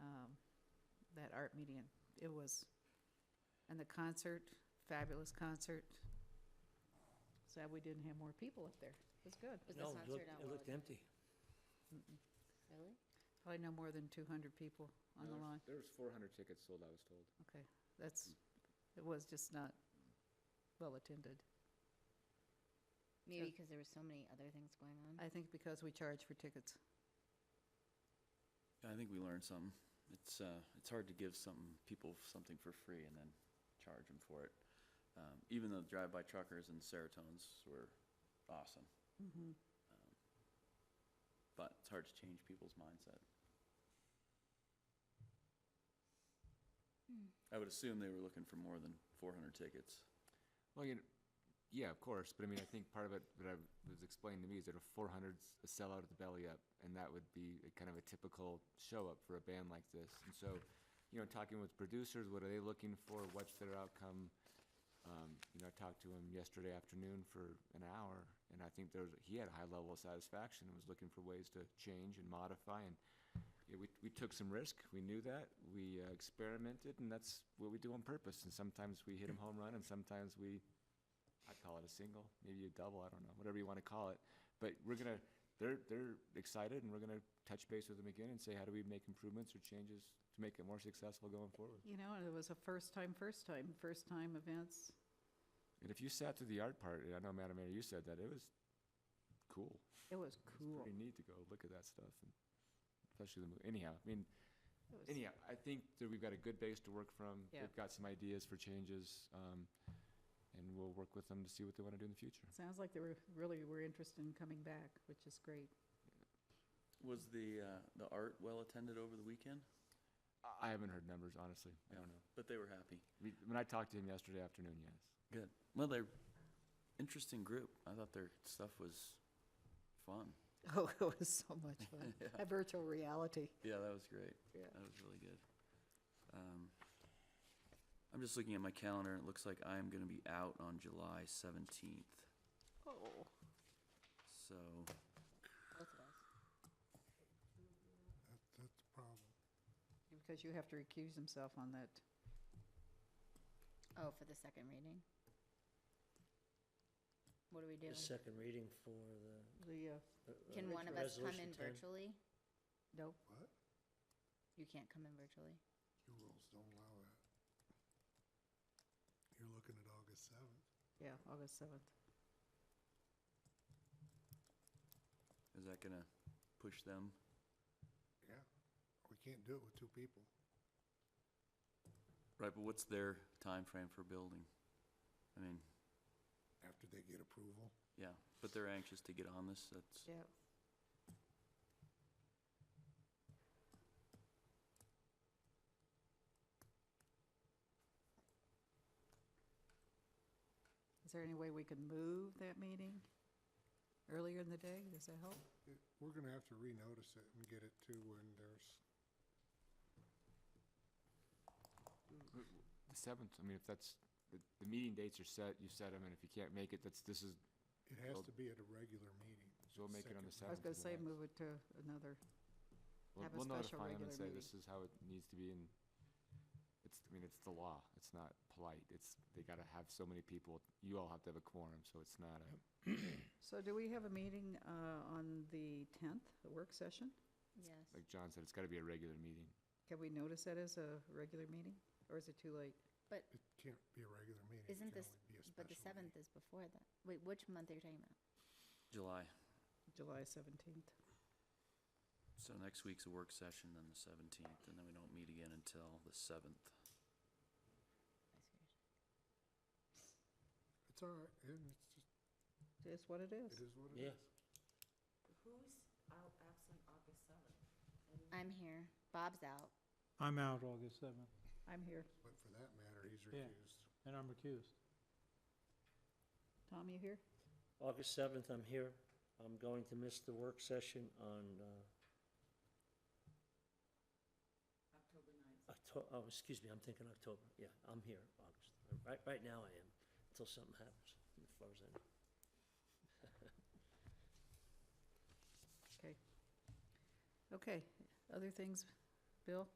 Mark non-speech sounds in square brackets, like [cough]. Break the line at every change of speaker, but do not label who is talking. um, art medium. It was, and the concert, fabulous concert. Sad we didn't have more people up there. It was good.
Was the
No, it
concert
looked,
out
it
well?
looked empty.
Really?
Probably no more than two hundred people on the
There was-
line.
There was four hundred tickets sold, I was told.
Okay, that's, it was just not well attended.
Maybe because there were so many other things going on.
I think because we charge for tickets.
I think we learned something. It's, uh, it's hard to give something, people something for free and then charge them for it. Um, even though drive-by truckers and serotones were awesome, Um,
Mm-hmm.
but it's hard to change people's mindset. I would assume they were looking for more than four hundred tickets.
Well, you know,
Yeah, of course, but I mean, I think part of it that I've, was explained to me is that a 400's a sellout at the belly up, and that would be a kind of a typical show up for a band like this. And so, you know, talking with producers, what are they looking for? What's their outcome? Um, you know, I talked to him yesterday afternoon for an hour, and I think there was, he had a high level of satisfaction and was looking for ways to change and modify. And yeah, we, we took some risk. We knew that. We uh, experimented, and that's what we do on purpose. And sometimes we hit a home run, and sometimes we I call it a single, maybe a double, I don't know, whatever you want to call it. But we're gonna, they're, they're excited and we're gonna touch base with them again and say, how do we make improvements or changes to make it more successful going forward?
You know, and it was a first time, first time, first time events.
And if you sat through the art part, and I know Madam Mayor, you said that, it was cool.
It was
It's
cool.
pretty neat to go look at that stuff and especially the, mo- anyhow, I mean,
It was-
anyhow, I think that we've got a good base to work from.
Yeah.
They've got some ideas for changes, um, and we'll work with them to see what they want to do in the future.
Sounds like they were, really were interested in coming back, which is great.
Was the, uh, the art well attended over the weekend?
I- I haven't heard numbers, honestly. I don't know.
But they were happy.
We- When I talked to him yesterday afternoon, yes.
Good. Well, they're interesting group. I thought their stuff was fun.
[laughs] Oh, it was so [laughs] much fun. A virtual reality.
Yeah, that was great.
Yeah.
That was really good. Um, I'm just looking at my calendar, and it looks like I am gonna be out on July seventeenth,
Oh.
so,
Both of us.
That's the problem.
Because you have to recuse himself on that.
Oh, for the second reading? What do we do?
The second reading for the.
The, uh,
uh,
Can
uh,
one of us come in
resolution 10.
virtually?
no,
What?
You can't come in virtually.
Your rules don't allow that. You're looking at August seventh.
yeah, August seventh.
is that gonna push them?
Yeah. We can't do it with two people.
Right, but what's their time frame for building? I mean,
After they get approval,
yeah, but they're anxious to get on this, that's,
Yeah. Is there any way we could move that meeting earlier in the day? Does that help?
it- we're gonna have to renotice it and get it to when there's,
The seventh, I mean, if that's, the, the meeting dates are set, you set them, and if you can't make it, that's, this is,
it has
Well-
to be at a regular meeting.
so we'll make it on the
I
seventh.
was gonna say move it to another, have a special
We'll notify them and
regular
say
meeting.
this is how it needs to be, and it's, I mean, it's the law, it's not polite, it's, they gotta have so many people, you all have to have a quorum, so it's not a,
so do we have a meeting, uh, on the tenth, a work session?
Yes.
like John said, it's gotta be a regular meeting.
Can we notice that as a regular meeting, or is it too late?
It can't be a regular meeting. it
Isn't
can
this-
only be a
But the
special
seventh
meeting.
is before that. Wait, which month are you talking about?
July,
July seventeenth?
so next week's a work session, then the seventeenth, and then we don't meet again until the seventh.
It's all right, and it's just,
It is what it is.
it is what it
Yeah.
is.
Who's out absent August seventh?
I'm here. Bob's out.
I'm out August seventh,
I'm here.
But for that matter, he's
Yeah.
recused.
and I'm recused.
Tom, you here?
August seventh, I'm here. I'm going to miss the work session on, uh,
October ninth.
Octo, oh, excuse me, I'm thinking October. Yeah, I'm here, August. Right, right now I am, until something happens, and it flows in.
Okay, other things, Bill?